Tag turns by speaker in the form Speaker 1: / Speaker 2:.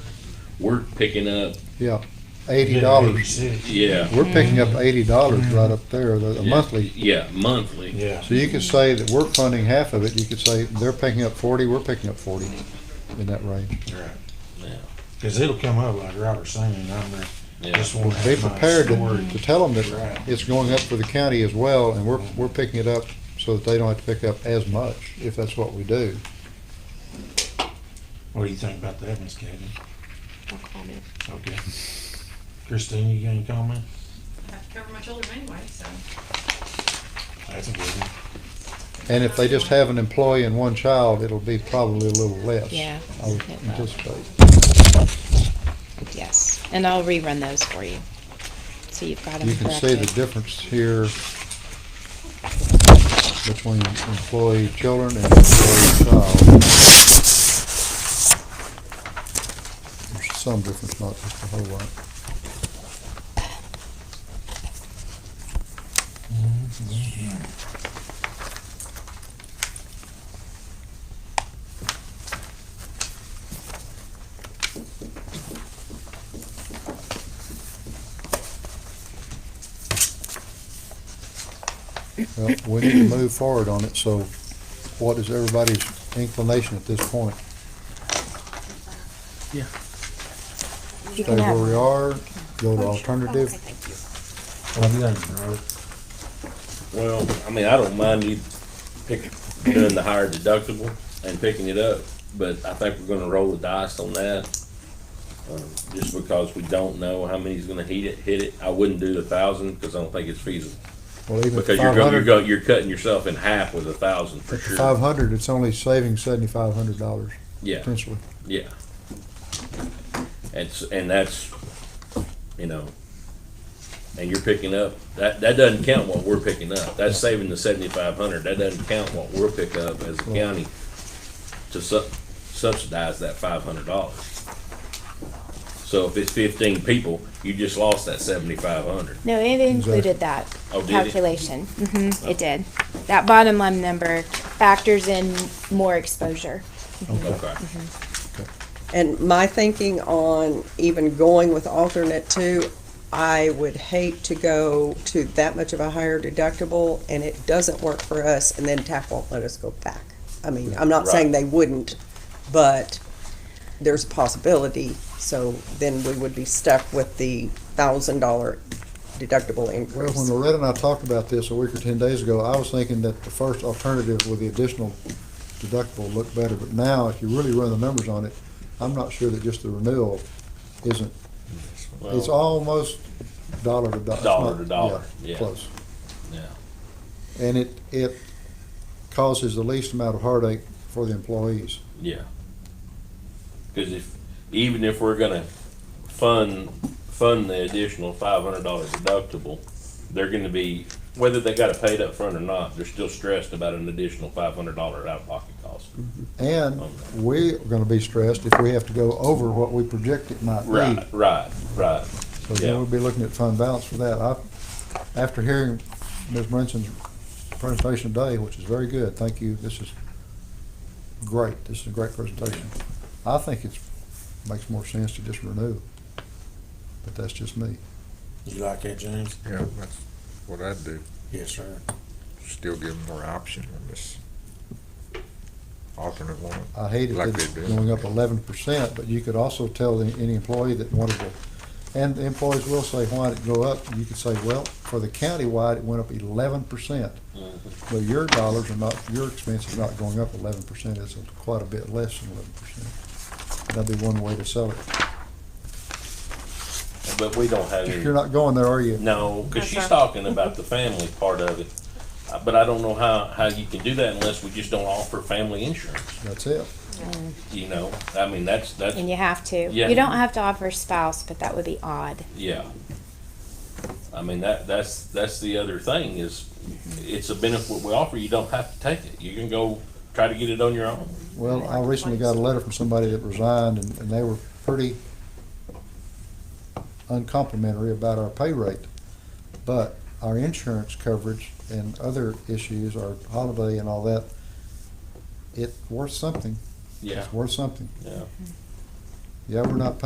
Speaker 1: we're picking up,
Speaker 2: Yeah, eighty dollars.
Speaker 1: yeah.
Speaker 2: We're picking up eighty dollars right up there, the, the
Speaker 1: yeah,
Speaker 2: monthly.
Speaker 1: Yeah, monthly.
Speaker 3: Yeah.
Speaker 2: So you could say that we're funding half of it. You could say they're picking up forty, we're picking up forty, in that range.
Speaker 1: Yeah.
Speaker 3: Cause it'll come up like Robert saying, I'm gonna
Speaker 1: Yeah.
Speaker 3: just wanna
Speaker 2: Be
Speaker 3: have my
Speaker 2: prepared
Speaker 3: story.
Speaker 2: to, to tell them that
Speaker 3: Right.
Speaker 2: it's going up for the county as well, and we're, we're picking it up so that they don't have to pick up as much, if that's what we do.
Speaker 3: What do you think about that, Miss Kathy?
Speaker 4: No comment.
Speaker 3: Okay. Christine, you got any comment?
Speaker 5: I have to cover my children anyway, so.
Speaker 3: That's a good one.
Speaker 2: And if they just have an employee and one child, it'll be probably a little less.
Speaker 4: Yeah,
Speaker 2: I would
Speaker 4: it will.
Speaker 2: anticipate.
Speaker 4: Yes, and I'll rerun those for you. So you've got them
Speaker 2: You can see the
Speaker 4: corrected.
Speaker 2: difference here between employee children and employee child. There's some difference, not just a whole lot.
Speaker 1: Mm-hmm.
Speaker 2: Well, we need to move forward on it, so what is everybody's inclination at this point?
Speaker 6: You
Speaker 2: Stay
Speaker 6: can
Speaker 2: where
Speaker 6: have
Speaker 2: we
Speaker 6: one.
Speaker 2: are, go to
Speaker 6: Oh, sure.
Speaker 2: alternative?
Speaker 6: Okay, thank you.
Speaker 3: What do you think, Robert?
Speaker 1: Well, I mean, I don't mind you picking, doing the higher deductible and picking it up, but I think we're gonna roll the dice on that. um, Just because we don't know how many's gonna heat it, hit it. I wouldn't do the thousand, cause I don't think it's feasible.
Speaker 2: Well, even
Speaker 1: Because you're go,
Speaker 2: five
Speaker 1: you're
Speaker 2: hundred,
Speaker 1: go, you're cutting yourself in half with a thousand for
Speaker 2: five
Speaker 1: sure.
Speaker 2: hundred, it's only saving seventy-five hundred dollars
Speaker 1: Yeah.
Speaker 2: potentially.
Speaker 1: Yeah. It's, and that's, you know, and you're picking up, that, that doesn't count what we're picking up. That's saving the seventy-five hundred. That doesn't count what we'll pick up as a county to sub, subsidize that five hundred dollars. So if it's fifteen people, you just lost that seventy-five hundred.
Speaker 6: No, it included that
Speaker 1: Oh, did it?
Speaker 6: calculation. hmm it did. That bottom line number factors in more exposure.
Speaker 1: Okay.
Speaker 7: And my thinking on even going with alternate two, I would hate to go to that much of a higher deductible and it doesn't work for us and then TAP won't let us go back. I mean, I'm not saying
Speaker 1: Right.
Speaker 7: they wouldn't, but there's a possibility, so then we would be stuck with the thousand dollar deductible
Speaker 2: Well, when
Speaker 7: increase.
Speaker 2: Loretta and I talked about this a week or ten days ago, I was thinking that the first alternative with the additional deductible looked better, but now, if you really run the numbers on it, I'm not sure that just the renewal isn't, it's
Speaker 1: Well,
Speaker 2: almost dollar to dollar. It's
Speaker 1: Dollar
Speaker 2: not-
Speaker 1: to dollar, yeah.
Speaker 2: Close.
Speaker 1: yeah.
Speaker 2: And it, it causes the least amount of heartache for the employees.
Speaker 1: Yeah. Cause if, even if we're gonna fund, fund the additional five hundred dollar deductible, they're gonna be, whether they got it paid up front or not, they're still stressed about an additional five hundred dollar out-of-pocket cost.
Speaker 2: And we're gonna be stressed if we have to go over what we project it might be.
Speaker 1: Right, right, right.
Speaker 2: So then
Speaker 1: Yeah.
Speaker 2: we'll be looking at fund balance for that. I, after hearing Ms. Brinson's presentation today, which is very good, thank you, this is great, this is a great presentation. I think it's, makes more sense to just renew, but that's just me.
Speaker 3: You like that, James?
Speaker 8: Yeah, that's what I'd do,
Speaker 3: Yes, sir.
Speaker 8: still give them more option on this alternate one.
Speaker 2: I hated
Speaker 8: Like
Speaker 2: that it's
Speaker 8: they do.
Speaker 2: going up eleven percent, but you could also tell the- any employee that wanted to, and the employees will say, why did it go up? You could say, well, for the countywide, it went up eleven percent.
Speaker 8: Mm-hmm.
Speaker 2: But your dollars are not, your expenses are not going up eleven percent, it's quite a bit less than eleven percent. That'd be one way to sell it.
Speaker 1: But we don't have any.
Speaker 2: You're not going there, are you?
Speaker 1: No, because she's talking about the family part of it, Uh, but I don't know how, how you can do that unless we just don't offer family insurance,
Speaker 2: That's it.
Speaker 1: you know? I mean, that's, that's,
Speaker 4: And you have to.
Speaker 1: Yeah.
Speaker 4: You don't have to offer spouse, but that would be odd.
Speaker 1: Yeah. I mean, that, that's, that's the other thing is, it's a benefit we offer, you don't have to take it. You can go try to get it on your own.
Speaker 2: Well, I recently got a letter from somebody that resigned, and, and they were pretty uncomplimentary about our pay rate. But our insurance coverage and other issues, our holiday and all that, it's worth something.
Speaker 1: Yeah,
Speaker 2: It's worth something.
Speaker 1: yeah.
Speaker 2: Yeah, we're not